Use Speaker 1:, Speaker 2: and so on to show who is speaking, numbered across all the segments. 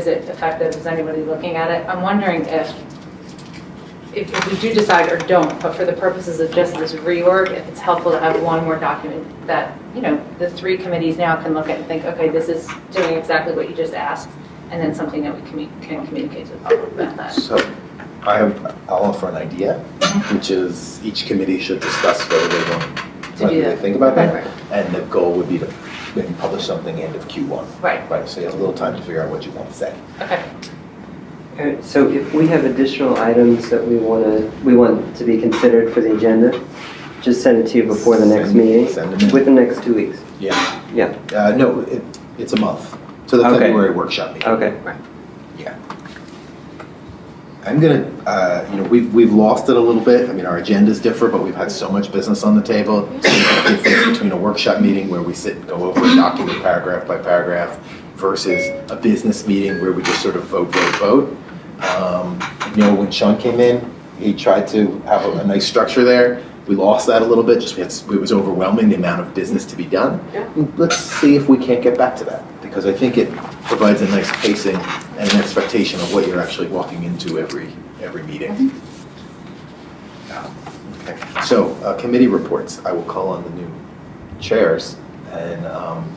Speaker 1: Is it effective? Is anybody looking at it? I'm wondering if, if if we do decide or don't, but for the purposes of just this reorg, if it's helpful to have one more document that, you know, the three committees now can look at and think, okay, this is doing exactly what you just asked, and then something that we commu- can communicate to the public about that.
Speaker 2: So I have, I'll offer an idea, which is each committee should discuss whether they want,
Speaker 1: To do
Speaker 2: whether they
Speaker 1: that.
Speaker 2: think about
Speaker 1: Right,
Speaker 2: that.
Speaker 1: right,
Speaker 2: And the goal would be to maybe publish something end of Q1,
Speaker 1: Right,
Speaker 2: right? So you have a little time to figure out what you want to say.
Speaker 1: okay.
Speaker 3: All right, so if we have additional items that we want to, we want to be considered for the agenda, just send it to you before the next
Speaker 2: Send-
Speaker 3: meeting,
Speaker 2: Send them in.
Speaker 3: within the next two weeks.
Speaker 2: Yeah.
Speaker 3: Yeah.
Speaker 2: Uh, no, it, it's a month, to the
Speaker 3: Okay.
Speaker 2: February workshop meeting.
Speaker 3: Okay.
Speaker 2: I'm gonna, uh, you know, we've, we've lost it a little bit. I mean, our agendas differ, but we've had so much business on the table. So the difference between a workshop meeting where we sit and go over a document paragraph by paragraph versus a business meeting where we just sort of vote, vote, vote. Um, You know, when Sean came in, he tried to have a a nice structure there. We lost that a little bit, just because it was overwhelming, the amount of business to be done.
Speaker 1: Yeah.
Speaker 2: Let's see if we can't get back to that, because I think it provides a nice pacing and an expectation of what you're actually walking into every, every meeting. Um, okay. So, uh, committee reports, I will call on the new chairs, and um,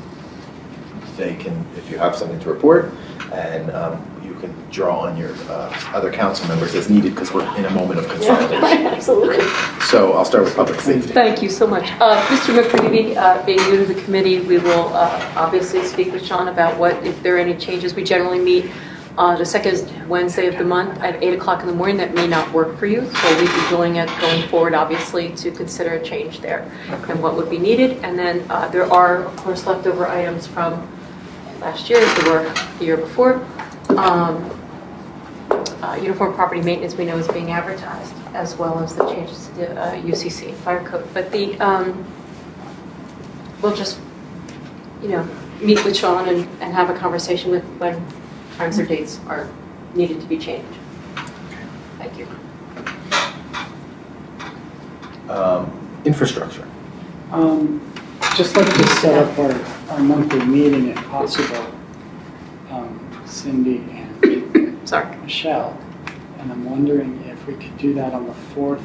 Speaker 2: they can, if you have something to report, and um, you can draw on your uh, other council members as needed, because we're in a moment of consolidation.
Speaker 4: Absolutely.
Speaker 2: So I'll start with public safety.
Speaker 4: Thank you so much. Uh, Mr. McCready, uh, being new to the committee, we will uh, obviously speak with Sean about what, if there are any changes. We generally meet uh, the second Wednesday of the month at 8 o'clock in the morning. That may not work for you, so we'd be doing it going forward, obviously, to consider a change there and what would be needed. And then uh, there are, of course, leftover items from last year, as there were the year before. Um, uh, Uniform property maintenance, we know is being advertised, as well as the changes to the uh, UCC fire code. But the, um, we'll just, you know, meet with Sean and, and have a conversation with when times or dates are needed to be changed. Thank you.
Speaker 2: Um, Infrastructure.
Speaker 5: Um, Just like to set up our, our monthly meeting if possible, um, Cindy and
Speaker 4: Sorry.
Speaker 5: Michelle. And I'm wondering if we could do that on the fourth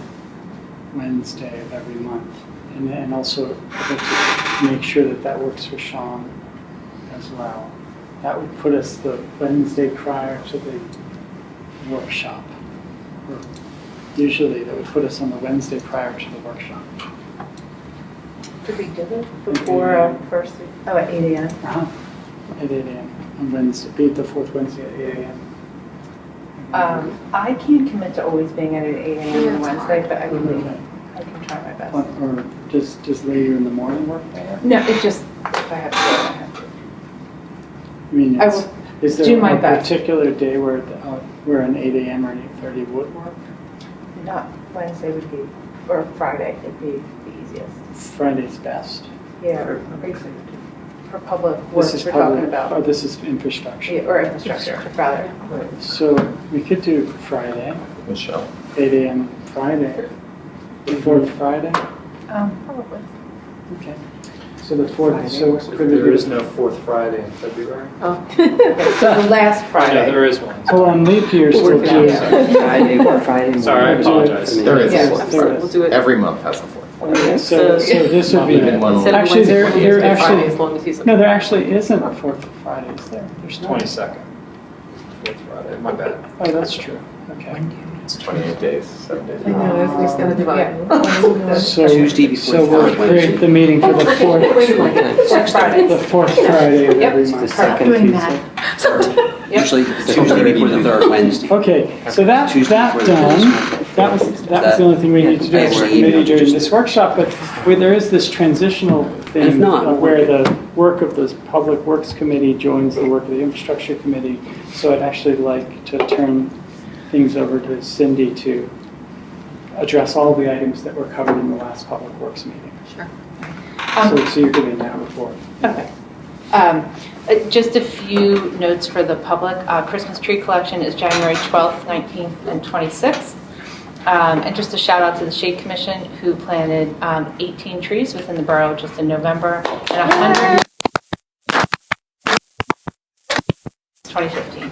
Speaker 5: Wednesday of every month. And, and also I'd like to make sure that that works for Sean as well. That would put us the Wednesday prior to the workshop. Or Usually that would put us on the Wednesday prior to the workshop.
Speaker 1: Could we do it
Speaker 5: before, uh,
Speaker 1: first, oh, at 8 AM?
Speaker 5: Uh-huh. um, At eight AM on Wednesday, be it the fourth Wednesday at eight AM.
Speaker 1: I can't commit to always being at 8
Speaker 4: AM on Wednesday,
Speaker 1: but I
Speaker 5: Okay.
Speaker 1: I can try my best.
Speaker 5: Or or just, just later in the morning work? I
Speaker 1: No, it just, if I have to, I have to.
Speaker 5: mean,
Speaker 1: I
Speaker 5: it's- is
Speaker 1: do
Speaker 5: there
Speaker 1: my
Speaker 5: a
Speaker 1: best.
Speaker 5: particular day where, the- uh, where an eight AM or an eight thirty would work?
Speaker 1: Not Wednesday would be, or Friday would be the easiest.
Speaker 5: Friday's best.
Speaker 1: Yeah, for public
Speaker 5: This
Speaker 1: works
Speaker 5: is
Speaker 1: we're talking
Speaker 5: public,
Speaker 1: about,
Speaker 5: or this is infrastructure.
Speaker 1: Yeah, or infrastructure, rather.
Speaker 5: So we could do Friday,
Speaker 2: Michelle.
Speaker 5: eight AM Friday, the fourth Friday,
Speaker 1: Probably.
Speaker 5: okay. So the fourth, so
Speaker 6: So
Speaker 5: could we
Speaker 6: There is
Speaker 5: do,
Speaker 6: no fourth Friday in February?
Speaker 4: Oh.
Speaker 1: So the last
Speaker 6: No,
Speaker 1: Friday.
Speaker 6: there is one.
Speaker 5: oh, on leap year still
Speaker 4: We're
Speaker 5: do.
Speaker 4: down.
Speaker 3: Friday, or Friday morning.
Speaker 6: Sorry, I
Speaker 5: Do it for
Speaker 6: apologize.
Speaker 5: me.
Speaker 2: There is.
Speaker 1: Yeah.
Speaker 4: I'm sorry, we'll do it.
Speaker 2: Every month has a fourth.
Speaker 5: Okay, So, so this would be,
Speaker 2: Even one
Speaker 4: Instead of
Speaker 5: Actually,
Speaker 4: Wednesday,
Speaker 5: there-
Speaker 4: we'll do
Speaker 5: there
Speaker 4: it
Speaker 5: actually-
Speaker 4: Friday, as long as he's.
Speaker 5: no, there actually isn't a fourth Friday, is there? There's not.
Speaker 6: Twenty-second. Fourth Friday, my bad.
Speaker 5: Oh, that's true, okay.
Speaker 2: It's 28 days, seven days.
Speaker 5: I know, it's- it's
Speaker 4: gonna
Speaker 1: divide.
Speaker 5: So,
Speaker 3: Tuesday before
Speaker 5: so we'll
Speaker 3: Friday.
Speaker 5: create the meeting for the
Speaker 4: Wait a
Speaker 5: fourth,
Speaker 4: minute.
Speaker 1: Fourth Friday.
Speaker 5: the fourth Friday of
Speaker 1: Yep.
Speaker 5: every
Speaker 3: It's the
Speaker 5: month.
Speaker 3: second
Speaker 7: Doing
Speaker 3: Tuesday.
Speaker 7: that.
Speaker 3: Usually the Tuesday before the third Wednesday.
Speaker 5: Okay, so that,
Speaker 3: Tuesday
Speaker 5: that
Speaker 3: before the third
Speaker 5: done,
Speaker 3: Wednesday.
Speaker 5: that was, that was the only thing we need to do as a committee during this workshop, but where there is this transitional
Speaker 3: If
Speaker 5: thing
Speaker 3: not,
Speaker 5: uh, where the work of the Public Works Committee joins the work of the Infrastructure Committee, so I'd actually like to turn things over to Cindy to address all the items that were covered in the last Public Works meeting.
Speaker 4: Sure.
Speaker 1: Um,
Speaker 5: So, so you're giving that report.
Speaker 1: Okay. Um, uh, Just a few notes for the public. Uh, Christmas tree collection is January 12th, 19th, and 26th. Um, And just a shout out to the Shade Commission, who planted um, 18 trees within the borough just in November, and 100 2015.